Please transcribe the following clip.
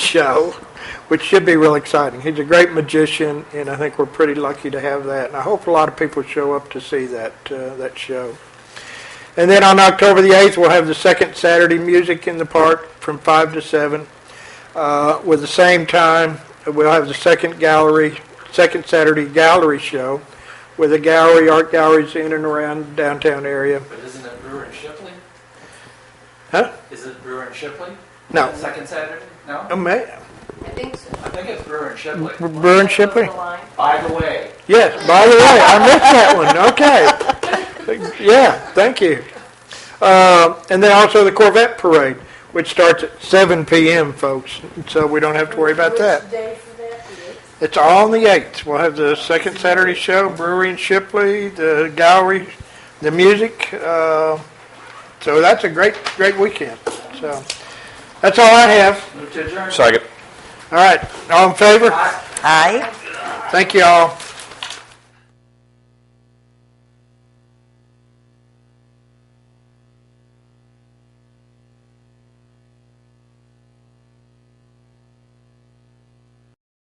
show, which should be real exciting. He's a great magician, and I think we're pretty lucky to have that. And I hope a lot of people show up to see that uh, that show. And then on October the 8th, we'll have the second Saturday Music in the Park from 5 to 7. Uh, with the same time, we'll have the second gallery, second Saturday gallery show with the gallery, art galleries in and around downtown area. But isn't it Brewer and Shipley? Huh? Is it Brewer and Shipley? No. Second Saturday? No? Oh, man. I think so. I think it's Brewer and Shipley. Burn Shipley? The line. By the way, Yes, by the way, I missed that one. Okay. Yeah, thank you. Uh, and then also the Corvette Parade, which starts at 7 p.m., folks, so we don't have to worry about that. Which day for that is? It's all on the 8th. We'll have the second Saturday show, Brewery and Shipley, the gallery, the music. Uh, so that's a great, great weekend. So that's all I have. move to adjourn. Second. All right, all in favor? Aye. Aye. Thank you all.